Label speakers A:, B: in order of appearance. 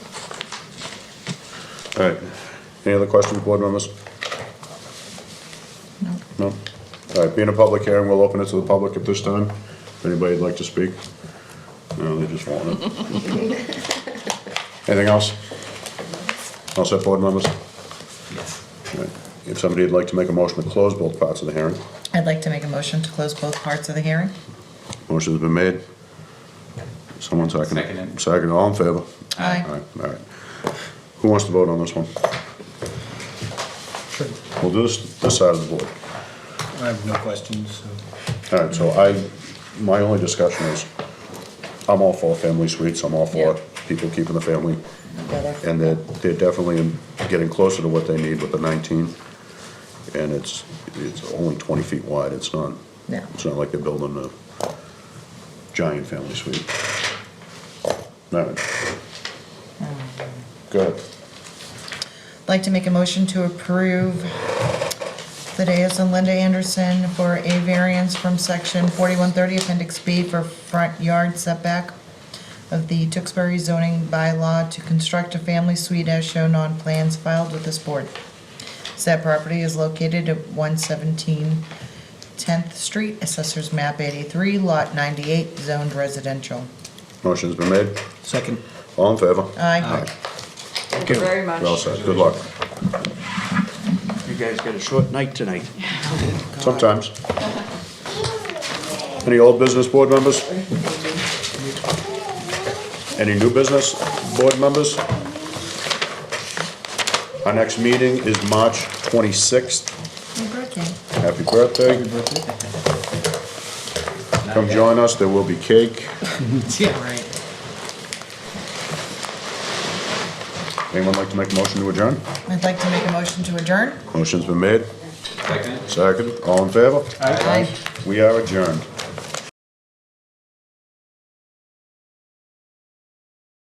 A: All right. Any other questions, board members? No. No? All right, being a public hearing, we'll open it to the public at this time. If anybody'd like to speak. No, they just want it. Anything else? All set, board members? All right. If somebody'd like to make a motion to close both parts of the hearing,
B: I'd like to make a motion to close both parts of the hearing.
A: motion's been made. Someone second it.
C: Second it.
A: Second, all in favor? All
B: Aye.
A: right, all right. Who wants to vote on this one? We'll do this, this side of the board.
D: I have no questions, so.
A: All right, so I, my only discussion is, I'm all for family suites, I'm all for
B: Yeah.
A: people keeping the family,
B: Better.
A: and they're, they're definitely getting closer to what they need with the nineteen. And it's, it's only twenty feet wide, it's not,
B: No.
A: it's not like they're building a giant family suite. All right. Go ahead.
B: I'd Like to make a motion to approve the dais and Linda Anderson for a variance from section 4130 appendix B for front yard setback of the Tewksbury zoning bylaw to construct a family suite as shown on plans filed with this board. Said property is located at 117 10th Street, Assessors Map 83, Lot 98, zoned residential.
A: Motion's been made.
D: Second.
A: All in favor?
B: Aye.
E: Thank you very much.
A: Well said. Good luck.
F: You guys got a short night tonight.
A: Sometimes. Any old business board members? Any new business board members? Our next meeting is March 26th.
B: Happy birthday.
A: Happy birthday. Come join us. There will be cake.
D: Yeah, right.
A: Anyone like to make a motion to adjourn?
B: I'd like to make a motion to adjourn.
A: Motion's been made.
C: Second?
A: Second. All in favor?
B: Aye.
A: We are adjourned.